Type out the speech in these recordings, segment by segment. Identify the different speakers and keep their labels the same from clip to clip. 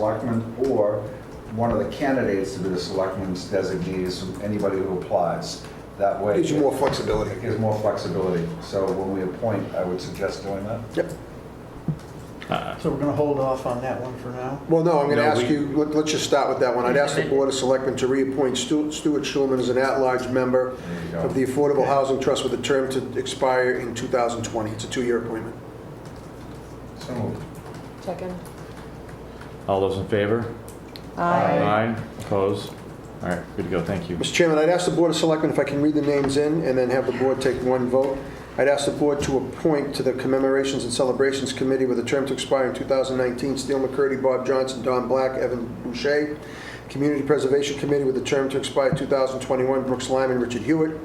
Speaker 1: selectmen or one of the candidates to be the selectmen's designees from anybody who applies. That way.
Speaker 2: Gives you more flexibility.
Speaker 1: It gives more flexibility. So when we appoint, I would suggest doing that.
Speaker 2: Yep.
Speaker 3: So we're going to hold off on that one for now?
Speaker 2: Well, no, I'm going to
Speaker 4: No,
Speaker 2: ask
Speaker 4: we-
Speaker 2: you, let- let's just start with that one. I'd ask the Board of Selectmen to reappoint Stu- Stuart Schulman as an at-large member
Speaker 1: you go.
Speaker 2: of the Affordable Housing Trust with a term to expire in 2020. It's a two-year appointment.
Speaker 1: So moved.
Speaker 5: Second.
Speaker 4: All those in favor?
Speaker 1: Aye.
Speaker 4: Opposed? All right, good to go, thank you.
Speaker 2: Mr. Chairman, I'd ask the Board of Selectmen if I can read the names in and then have the board take one vote. I'd ask the board to appoint to the Commemorations and Celebrations Committee with a term to expire in 2019, Steele McCurdy, Bob Johnson, Don Black, Evan Boucher. Community Preservation Committee with a term to expire 2021, Brooks Lyman, Richard Hewitt.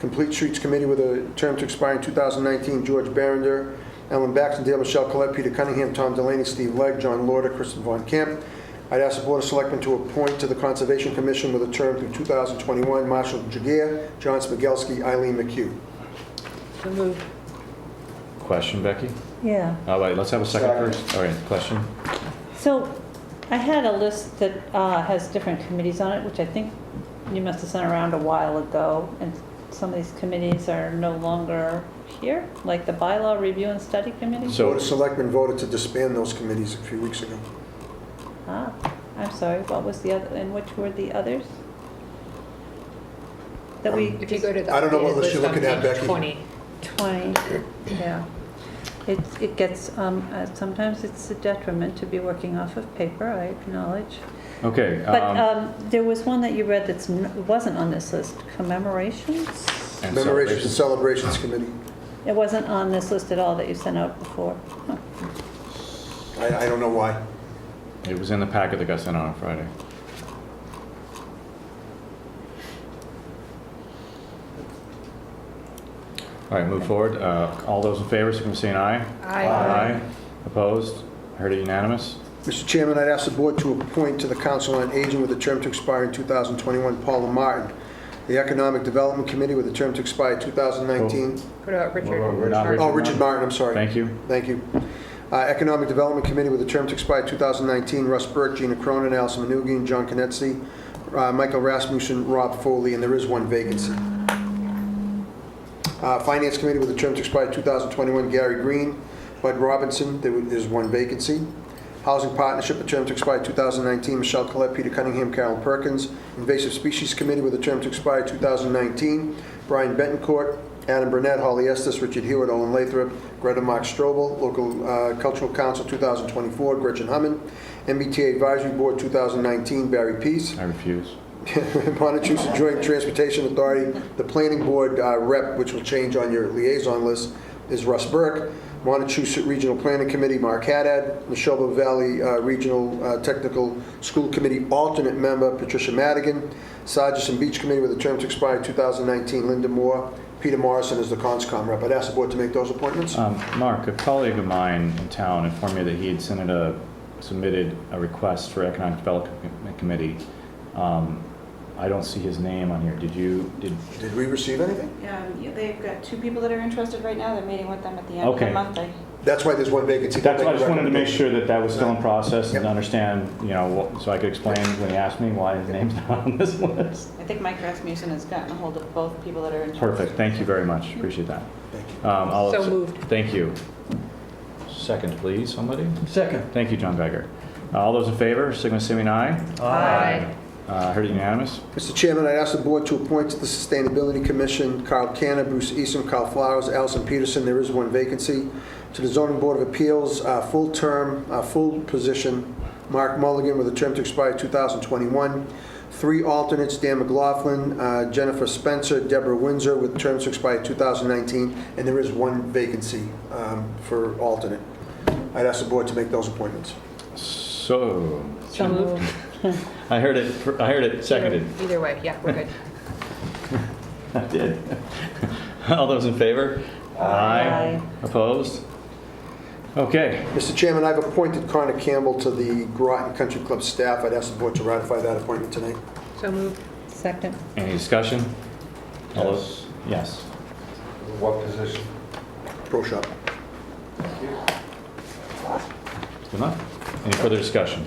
Speaker 2: Complete Streets Committee with a term to expire in 2019, George Barrender, Ellen Baxendale, Michelle Collette, Peter Cunningham, Tom Delaney, Steve Legg, John Lorder, Kristen Von Camp. I'd ask the Board of Selectmen to appoint to the Conservation Commission with a term through 2021 Marshall Jaguar, John Smigelsky, Eileen McHugh.
Speaker 5: So moved.
Speaker 4: Question, Becky?
Speaker 6: Yeah,
Speaker 4: All right, let's have a second
Speaker 1: Second.
Speaker 4: first. All right, question?
Speaker 6: so I had a list that uh, has different committees on it, which I think you must have sent around a while ago, and some of these committees are no longer here, like the bylaw review and study committee?
Speaker 4: So-
Speaker 2: Board of Selectmen voted to disband those committees a few weeks ago.
Speaker 6: Ah, I'm sorry, what was the other, and which were the others? That we
Speaker 5: If you
Speaker 6: just,
Speaker 5: go to the
Speaker 2: I don't know
Speaker 5: updated
Speaker 2: what list you're
Speaker 5: on
Speaker 2: looking at,
Speaker 5: page
Speaker 2: Becky.
Speaker 5: 20.
Speaker 6: 20, yeah. It, it gets, um, uh, sometimes it's a detriment to be working off of paper, I acknowledge.
Speaker 4: Okay.
Speaker 6: But
Speaker 4: um,
Speaker 6: um, there was one that you read that's, n- wasn't on this list, commemorations?
Speaker 4: and
Speaker 2: Commemorations and
Speaker 4: celebration.
Speaker 2: Celebrations Committee.
Speaker 6: It wasn't on this list at all that you sent out before. Huh.
Speaker 2: I, I don't know why.
Speaker 4: It was in the packet that got sent out on Friday. All right, move forward. Uh, All those in favor, signify by saying aye.
Speaker 1: Aye.
Speaker 4: Opposed? Heard it unanimous?
Speaker 2: Mr. Chairman, I'd ask the board to appoint to the Council on Aging with a term to expire in 2021 Paula Martin. The Economic Development Committee with a term to expire 2019.
Speaker 5: What about
Speaker 1: What about
Speaker 5: Richard?
Speaker 1: Richard?
Speaker 4: Not
Speaker 2: Oh, Richard Martin, I'm sorry.
Speaker 4: Thank you.
Speaker 2: Thank you. Uh, Economic Development Committee with a term to expire 2019, Russ Burke, Gina Cronin, Allison Manugian, John Conetzi, uh, Michael Rasmussen, Rob Foley, and there is one vacancy. Uh, Finance Committee with a term to expire 2021, Gary Green, Bud Robinson, there is one vacancy. Housing Partnership, a term to expire 2019, Michelle Collette, Peter Cunningham, Carolyn Perkins. Invasive Species Committee with a term to expire 2019, Brian Betancourt, Adam Burnett, Holly Estes, Richard Hewitt, Owen Lathrop, Greta Mark Strobel, Local uh, Cultural Council 2024, Gretchen Hammond, MBTA Advisory Board 2019, Barry Pease.
Speaker 4: I refuse.
Speaker 2: Montechuset Joint Transportation Authority, the planning board uh, rep, which will change on your liaison list, is Russ Burke. Montechuset Regional Planning Committee, Mark Haddad. Neshoba Valley uh, Regional uh, Technical School Committee alternate member, Patricia Madigan. Sargent Beach Committee with a term to expire 2019, Linda Moore. Peter Morrison is the CONSCOM rep. I'd ask the board to make those appointments.
Speaker 4: Um, Mark, a colleague of mine in town informed me that he had sent a, submitted a request for Economic Development Committee. Um, I don't see his name on here. Did you, did,
Speaker 2: Did we receive anything?
Speaker 7: Um, you- They've got two people that are interested right now. They're meeting with them at the end of
Speaker 4: Okay.
Speaker 7: the month. I-
Speaker 2: That's why there's one vacancy.
Speaker 4: that's why I just wanted to make sure that that was still in process
Speaker 2: Yep.
Speaker 4: and understand, you know, what- so I could explain when he asked me why his name's not on this list.
Speaker 7: I think Mike Rasmussen has gotten a hold of both people that are interested.
Speaker 4: Perfect, thank you very much, appreciate that.
Speaker 2: Thank you.
Speaker 4: Um, I'll-
Speaker 5: So moved.
Speaker 4: Thank you. Second, please, somebody?
Speaker 3: Second.
Speaker 4: Thank you, John Becker. All those in favor, signal by saying aye.
Speaker 5: Aye.
Speaker 4: Uh, Heard it unanimous?
Speaker 2: Mr. Chairman, I'd ask the board to appoint to the Sustainability Commission Carl Canna, Bruce Easton, Carl Flowers, Allison Peterson, there is one vacancy. To the Zoning Board of Appeals, uh, full term, uh, full position, Mark Mulligan with a term to expire 2021. Three alternates, Dan McLaughlin, uh, Jennifer Spencer, Deborah Windsor with terms to expire 2019, and there is one vacancy um, for alternate. I'd ask the board to make those appointments.
Speaker 4: So,
Speaker 5: So moved.
Speaker 4: I heard it, fir- I heard it seconded.
Speaker 5: Either way, yeah, we're good.
Speaker 4: I did. All those in favor? Aye. Opposed? Okay,
Speaker 2: Mr. Chairman, I've appointed Connor Campbell to the Groton Country Club staff. I'd ask the board to ratify that appointment tonight.
Speaker 5: So moved.
Speaker 6: Second,
Speaker 4: any discussion? All those, yes.
Speaker 1: What position?
Speaker 2: Pro shop.
Speaker 4: Good enough. Any further discussion?